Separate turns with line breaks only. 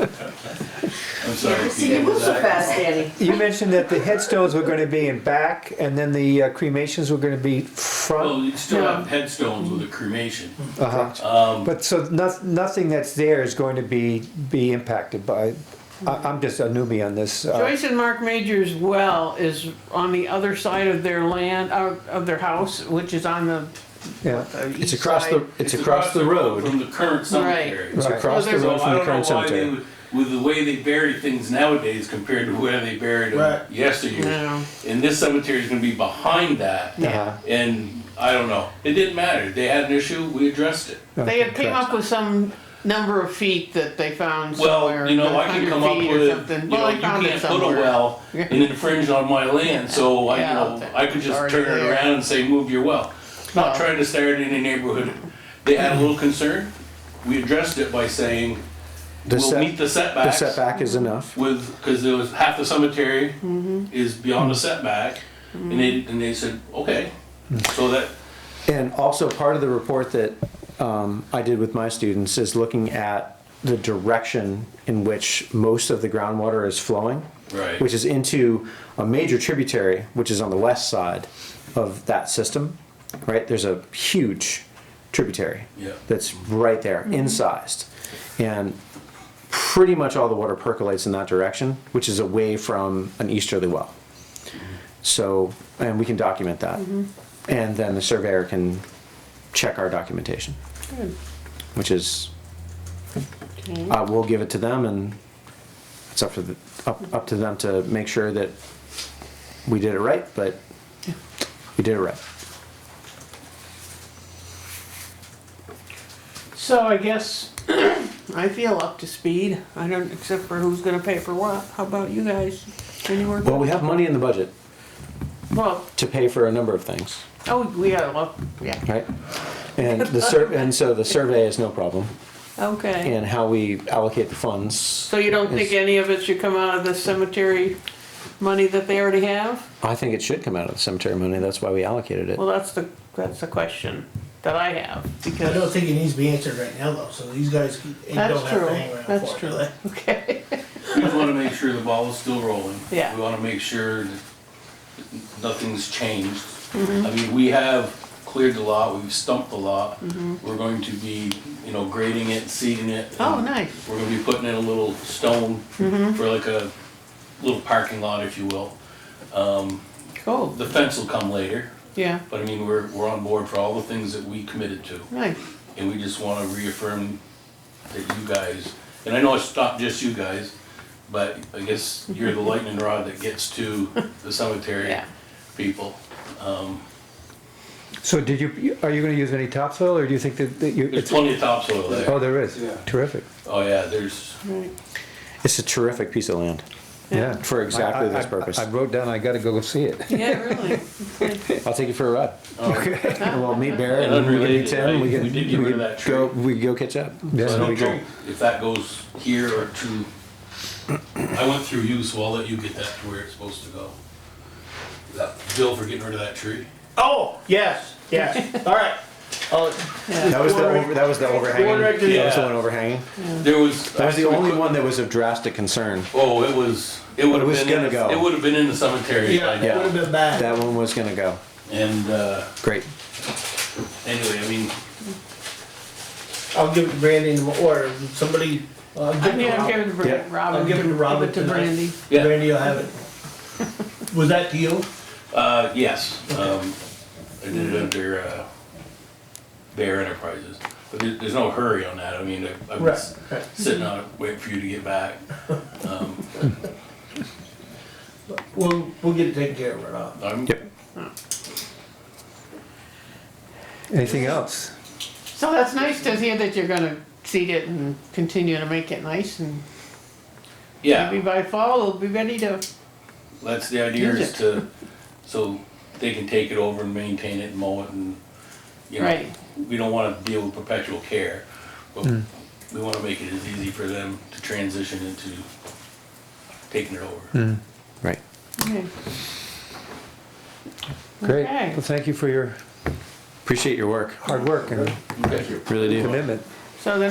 I'm sorry.
See, you move so fast, Danny.
You mentioned that the headstones were gonna be in back, and then the uh, cremations were gonna be
Well,
front.
you still have headstones with a cremation.
Uh-huh.
Um,
But so noth- nothing that's there is going to be, be impacted by, I- I'm just a newbie on this. uh,
Joyce and Mark Major's well is on the other side of their land, of, of their house, which is on the
Yeah,
uh, east side.
It's across the, it's across the road.
From the current cemetery.
It's
Right.
across the
So
So
road
I
from
don't
the
know
current
why they,
cemetery.
would- with the way they bury things nowadays compared to where they buried them
Right.
yesteryear.
No.
And this cemetery is gonna be behind that.
Uh-huh.
And I don't know. It didn't matter. They had an issue, we addressed it.
They had came up with some number of feet that they found somewhere.
Well, you know, I
like
can
100
come up
feet or
with,
something.
you
Well,
know,
I
you
found it
can't put a
somewhere.
well
Yeah.
and infringe on my land, so I, you
Yeah,
know,
okay.
I could just
Already
turn it
there.
around and say, move your well. Not
No.
trying to start any neighborhood. They had a little concern. We addressed it by saying,
The
we'll
set-
meet the
The
setbacks
setback is enough.
with, because there was half the cemetery
Mm-hmm.
is beyond the setback. And they, and they said, okay,
Mm.
so that,
And also part of the report that um, I did with my students is looking at the direction in which most of the groundwater is flowing.
Right.
Which is into a major tributary, which is on the west side of that system, right? There's a huge tributary.
Yeah.
That's right there, incised. And pretty much all the water percolates in that direction, which is away from an easterly well. So, and we can document that. And then the surveyor can check our documentation. Which is, uh, we'll give it to them and it's up to the, up, up to them to make sure that we did it right, but we did it right.
So I guess I feel up to speed. I don't, except for who's gonna pay for what. How about you guys? Any work?
Well, we have money in the budget
Well,
to pay for a number of things,
oh, we got a, yeah,
right? And the sur, and so the survey is no problem
okay.
and how we allocate the funds.
So you don't think any of it should come out of the cemetery money that they already have?
I think it should come out of the cemetery money. That's why we allocated it.
Well, that's the, that's the question that I have,
I don't
because,
think it needs to be answered right now though, so these guys, they don't
that's
have
true,
to hang around for it.
that's
do
true,
they?
okay.
we just wanna make sure the ball is still rolling.
Yeah.
We wanna make sure that nothing's changed.
Mm-hmm.
I mean, we have cleared the lot, we've stumped the lot. We're going to be, you know, grading it, seeding it.
Mm-hmm. Oh,
and
nice. Mm-hmm.
We're gonna be putting in a little stone for like a little parking lot, if you will. Um,
Cool,
the fence will come later,
yeah,
but I mean, we're, we're on board for all the things that we committed to.
nice.
And we just wanna reaffirm that you guys, and I know it's not just you guys, but I guess you're the lightning rod that gets to the cemetery
Yeah.
people. Um,
so did you, are you gonna use any topsoil, or do you think that that you?
There's
it's-
plenty of topsoil
Oh,
there.
there is, terrific,
Oh, yeah, there's,
Right.
It's a terrific piece of land
yeah.
for
I-
exactly
I-
this
I-
purpose.
I wrote down, I gotta go see it.
Yeah, really.
I'll take you for a ride. Well, meet Barry
And
and we can
unrelated,
meet Tim.
right?
We
We
can,
did get rid
we
of
can
that
go,
tree.
we can go catch up.
Yeah.
I
So we
don't
go.
know if that goes here or to, I went through you, so I'll let you get that to where it's supposed to go. That bill for getting rid of that tree.
Oh, yes, yes, all right. Oh,
That was the,
Quarter-
over- that was the overhanging.
quarter
That
acre-
was the
Yeah.
one overhanging.
There was. uh,
That was the only one that was of drastic concern.
Oh, it was, it would have
was
been, in
gonna
the-
go.
it would have been in the cemetery.
yeah,
by
it
now.
would've been bad.
That one was gonna go.
And, uh,
Great.
anyway, I mean,
I'll give it to Brandon or somebody, uh, give it
Yeah,
to
I'll give
Rob.
it to Brandy,
Yeah.
I'll
Robin,
give it to Robin
give it to
tonight.
Brandy.
Yeah.
Brandy will have it. Was that to you?
uh, yes, um, I did it under, uh, Bear Enterprises. But there, there's no hurry on that. I mean, I, I was
Right, right.
sitting on it, waiting for you to get back. Um,
We'll, we'll get it taken care of, Rob.
I'm,
Anything else?
So that's nice to hear that you're gonna seed it and continue to make it nice and
yeah.
maybe by fall we'll be ready to,
That's the idea
Use
is
it.
to, so they can take it over and maintain it and mow it and, you know,
right,
we don't wanna deal with perpetual care. But we wanna make it as easy for them to transition into taking it over.
Right.
okay.
Great,
Okay.
well, thank you for your
Appreciate your work.
hard work and
Thank you.
Really do.
commitment.
So the